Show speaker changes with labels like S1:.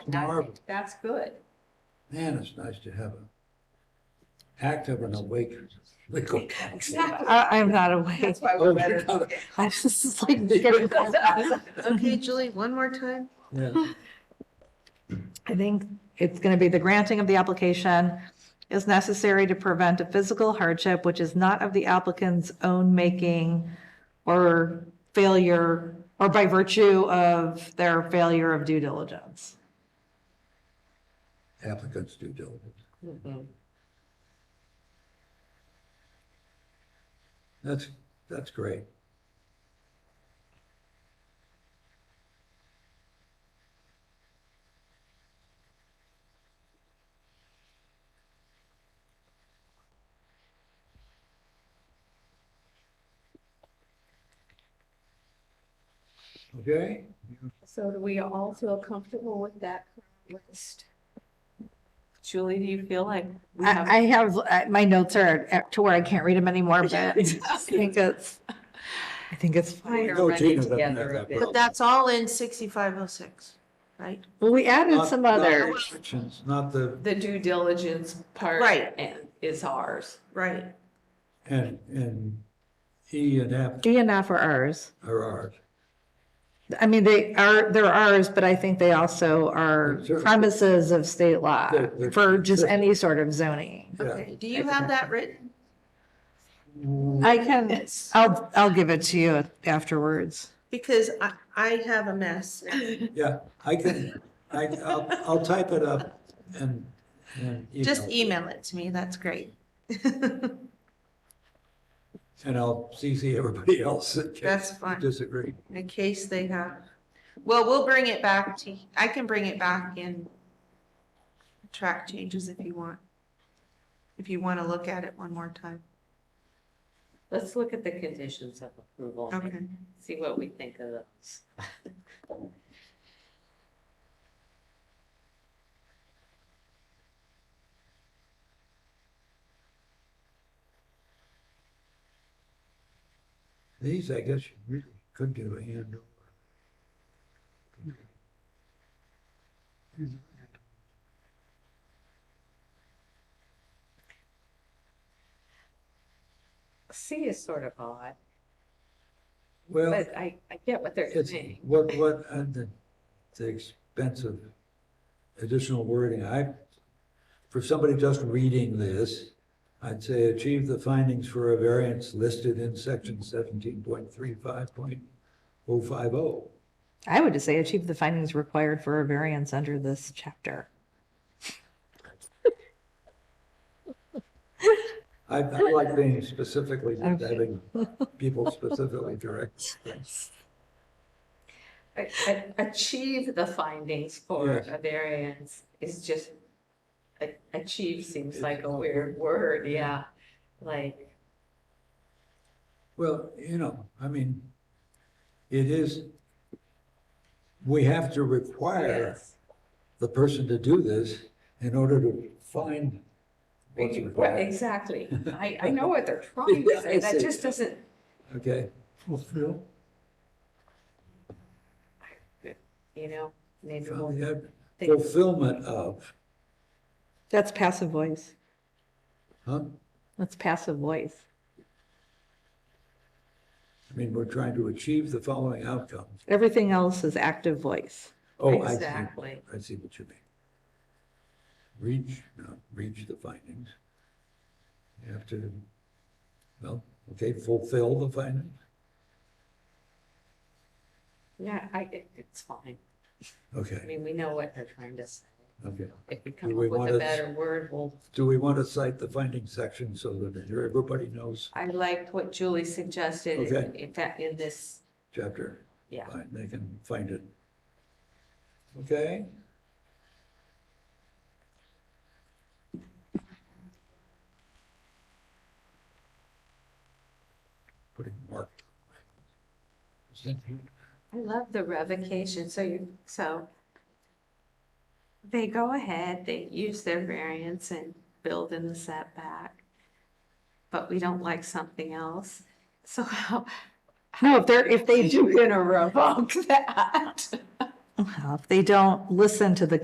S1: I think
S2: Marvelous.
S1: that's good.
S2: Man, it's nice to have an active and awake legal counsel.
S3: I, I'm not awake.
S1: That's why
S2: Oh,
S1: we're better.
S2: God.
S3: I was just like getting. Okay, Julie, one more time.
S2: Yeah.
S3: I think it's going to be the granting of the application is necessary to prevent a physical hardship which is not of the applicant's own making or failure, or by virtue of their failure of due diligence.
S2: Applicants due diligence. That's, that's great. Okay,
S4: So do we all feel comfortable with that list?
S1: Julie, do you feel like we have?
S3: I, I have, uh, my notes are at- to where I can't read them anymore, but I think it's, I think it's fine.
S1: We're
S2: No,
S1: ready
S2: Gina doesn't have
S1: together
S2: that
S1: a bit.
S2: problem.
S5: But that's all in sixty-five oh six, right?
S3: Well, we added
S2: Not-
S3: some
S2: not
S3: others.
S2: restrictions, Not the,
S1: The due diligence part.
S5: Right.
S1: and- Is ours.
S5: Right.
S2: and, and E and F
S3: D and F are ours.
S2: are ours.
S3: I mean, they are, they're ours, but I think they also are
S2: Sure.
S3: premises of state law
S2: They're- they're-
S3: for just any sort of zoning.
S2: Yeah.
S5: Okay, do you have that written?
S3: I can, I'll, I'll give it to you afterwards.
S5: Because I, I have a mess.
S2: Yeah, I can, I, I'll, I'll type it up and, and
S5: Just e-
S2: email,
S5: email it to me, that's great.
S2: and I'll CC everybody else that can
S5: That's fine,
S2: disagree.
S5: in case they have. Well, we'll bring it back to, I can bring it back in track changes if you want. If you want to look at it one more time.
S6: Let's look at the conditions of approval. and
S5: Okay.
S6: See what we think of those.
S2: These, I guess, you really could do a hand over.
S6: C is sort of odd,
S2: Well,
S6: but I, I get what they're
S2: Oh. it's,
S6: saying.
S2: what, what, uh, the, the expense of additional wording, I, for somebody just reading this, I'd say achieve the findings for a variance listed in section seventeen point three five point oh five oh.
S3: I would just say achieve the findings required for a variance under this chapter.
S2: I, I like being specifically,
S3: Okay.
S2: having people specifically direct things.
S6: A- a- Achieve the findings for
S2: Yes.
S6: a variance is just, a- achieve seems like a weird word, yeah. Like,
S2: Well, you know, I mean, it is, we have to require
S6: yes,
S2: the person to do this in order to find what's
S6: Well,
S2: required,
S6: exactly. I, I know what they're trying to say, that just doesn't,
S2: okay? Fulfill.
S6: you know, maybe we'll think,
S2: Fulfillment of,
S3: That's passive voice.
S2: huh?
S3: That's passive voice.
S2: I mean, we're trying to achieve the following outcomes.
S3: Everything else is active voice.
S2: Oh, I see.
S6: Exactly.
S2: I see what you mean. Reach, no, reach the findings. You have to, well, okay, fulfill the findings,
S6: yeah, I, it- it's fine. I
S2: okay,
S6: mean, we know what they're trying to say.
S2: okay.
S6: If we come
S2: Do
S6: up
S2: we
S6: with
S2: wanna-
S6: a better word, we'll
S2: Do we want to cite the findings section so that everybody knows
S6: I liked what Julie suggested in,
S2: Okay.
S6: in fact, in this,
S2: chapter?
S6: yeah.
S2: Fine, They can find it. Okay? Putting mark.
S6: I love the revocation, so you, so they go ahead, they use their variance and build in the setback, but we don't like something else, so how?
S3: No, if they're, if they
S6: You're
S3: do,
S6: gonna revoke that.
S3: if they don't listen to the